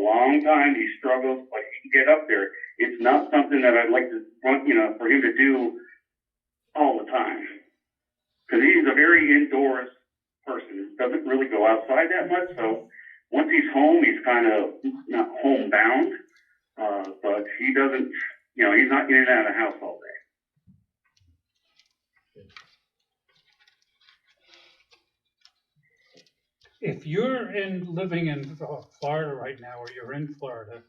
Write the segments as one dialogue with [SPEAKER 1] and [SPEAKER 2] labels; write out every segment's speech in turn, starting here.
[SPEAKER 1] long time. He struggles, but he can get up there. It's not something that I'd like to want, you know, for him to do all the time. Because he's a very indoors person. Doesn't really go outside that much. So once he's home, he's kind of not homebound. Uh, but he doesn't, you know, he's not in and out of the house all day.
[SPEAKER 2] If you're in, living in uh, Florida right now, or you're in Florida,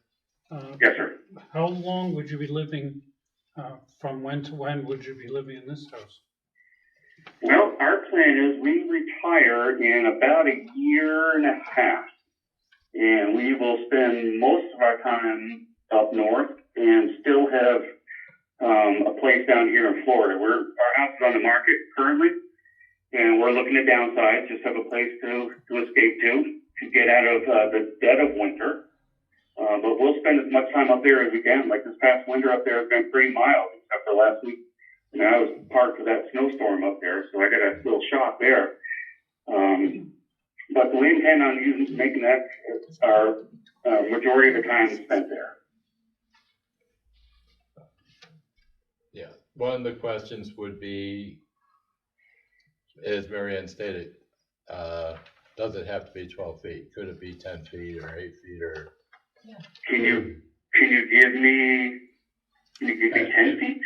[SPEAKER 2] uh,
[SPEAKER 1] Yes, sir.
[SPEAKER 2] how long would you be living, uh, from when to when would you be living in this house?
[SPEAKER 1] Well, our plan is we retire in about a year and a half. And we will spend most of our time up north and still have um, a place down here in Florida. We're, our house is on the market currently, and we're looking to downsize, just have a place to, to escape to, to get out of uh, the dead of winter. Uh, but we'll spend as much time up there as we can. Like this past winter up there has been pretty mild, except for last week and I was part of that snowstorm up there, so I got a little shock there. Um, but we intend on using, making that our uh, majority of the time spent there.
[SPEAKER 3] Yeah, one of the questions would be, as Marianne stated, uh, does it have to be twelve feet? Could it be ten feet or eight feet or?
[SPEAKER 1] Can you can you give me can you give me ten feet?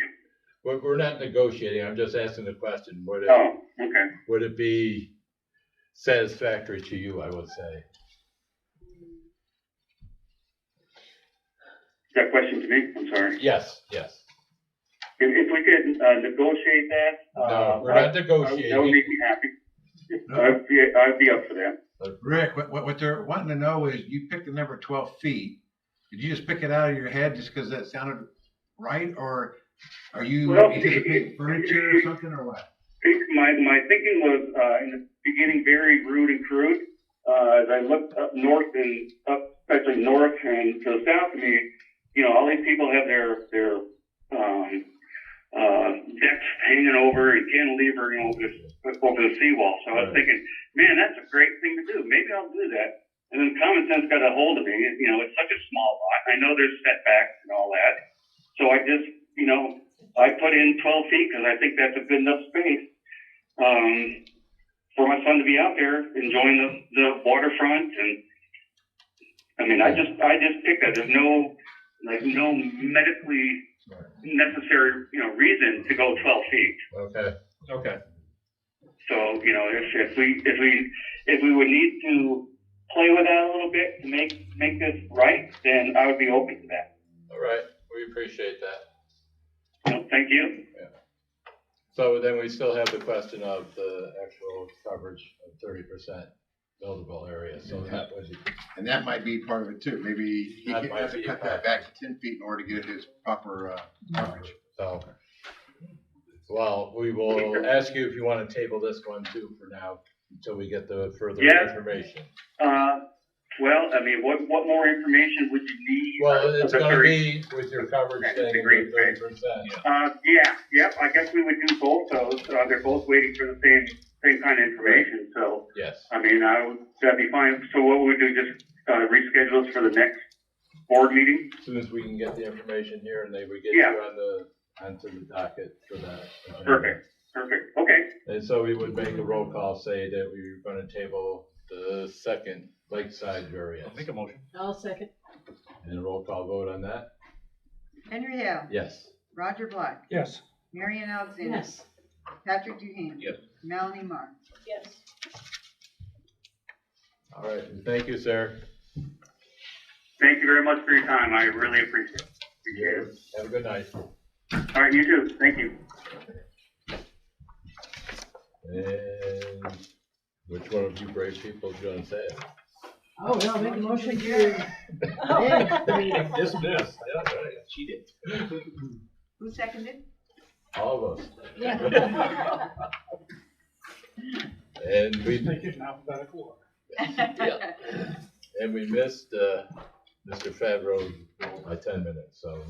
[SPEAKER 3] We're, we're not negotiating, I'm just asking the question, would it,
[SPEAKER 1] Oh, okay.
[SPEAKER 3] would it be satisfactory to you, I would say?
[SPEAKER 1] Is that question to me? I'm sorry.
[SPEAKER 3] Yes, yes.
[SPEAKER 1] If, if we could uh, negotiate that, uh,
[SPEAKER 3] No, we're not
[SPEAKER 1] I- I- that would
[SPEAKER 3] negotiating.
[SPEAKER 1] make me happy. I'd be I'd be up for that.
[SPEAKER 4] Rick, what, what, what they're wanting to know is you picked the number twelve feet. Did you just pick it out of your head just because that sounded right, or are you
[SPEAKER 1] Well,
[SPEAKER 4] anticipating furniture or something, or what?
[SPEAKER 1] think my, my thinking was uh, in the beginning very rude and crude. Uh, as I looked up north and up, especially north and to the south of me, you know, all these people have their their um, uh, decks hanging over and cantilever, you know, just over the seawall. So I was
[SPEAKER 3] Right.
[SPEAKER 1] thinking, man, that's a great thing to do. Maybe I'll do that. And then common sense got a hold of me. You know, it's such a small lot. I know there's setbacks and all that. So I just, you know, I put in 12 feet because I think that's a good enough space um, for my son to be out there enjoying the, the waterfront. And I mean, I just, I just picked that. There's no, like, no medically necessary, you know, reason to go 12 feet.
[SPEAKER 3] Okay, okay.
[SPEAKER 1] So, you know, if, if we, if we, if we would need to play with that a little bit to make, make this right, then I would be open to that.
[SPEAKER 3] All right, we appreciate that.
[SPEAKER 1] So, thank you.
[SPEAKER 3] So then we still have the question of the actual coverage of thirty percent buildable area, so that was,
[SPEAKER 4] And that might be part of it too. Maybe he
[SPEAKER 3] That
[SPEAKER 4] could-
[SPEAKER 3] might
[SPEAKER 4] has to
[SPEAKER 3] be a
[SPEAKER 4] cut that back to ten feet in order to get his proper, uh, coverage.
[SPEAKER 3] so. Well, we will ask you if you want to table this one too for now, until we get the further
[SPEAKER 1] Yeah.
[SPEAKER 3] information.
[SPEAKER 1] Uh, well, I mean, what, what more information would you need?
[SPEAKER 3] Well, it's
[SPEAKER 1] The
[SPEAKER 3] gonna
[SPEAKER 1] 30
[SPEAKER 3] be with your coverage thing,
[SPEAKER 1] Agree.
[SPEAKER 3] thirty percent.
[SPEAKER 1] Uh, yeah, yep, I guess we would do both those, uh, they're both waiting for the same, same kind of information, so,
[SPEAKER 3] Yes,
[SPEAKER 1] I mean, I would, that'd be fine, so what would we do, just, uh, reschedule this for the next board meeting?
[SPEAKER 3] as soon as we can get the information here and they would get you
[SPEAKER 1] Yeah.
[SPEAKER 3] on the, onto the docket for that.
[SPEAKER 1] Perfect. Perfect, okay,
[SPEAKER 3] And so we would make a roll call, say that we were gonna table the second lakeside variance.
[SPEAKER 5] Make a motion.
[SPEAKER 6] I'll second.
[SPEAKER 3] And a roll call vote on that?
[SPEAKER 7] Henry Hale,
[SPEAKER 3] Yes.
[SPEAKER 7] Roger Black,
[SPEAKER 2] Yes,
[SPEAKER 7] Marion Alexander.
[SPEAKER 6] Yes.
[SPEAKER 7] Patrick Duhane.
[SPEAKER 5] Yes.
[SPEAKER 7] Melanie Marr.
[SPEAKER 6] Yes.
[SPEAKER 3] All right, and thank you, sir.
[SPEAKER 1] thank you very much for your time, I really appreciate it. Appreciate it.
[SPEAKER 3] Have a good night.
[SPEAKER 1] All right, you too, thank you.
[SPEAKER 3] And which one of you brave people is gonna say it?
[SPEAKER 6] Oh, no, make a motion to. Oh.
[SPEAKER 5] Yes, yes, yeah, right, she did.
[SPEAKER 7] Who seconded?
[SPEAKER 3] All of us.
[SPEAKER 6] Yeah.
[SPEAKER 3] And
[SPEAKER 2] just
[SPEAKER 3] we,
[SPEAKER 2] make it in alphabetical order.
[SPEAKER 3] and we missed, uh, Mr. Favreau by ten minutes, so.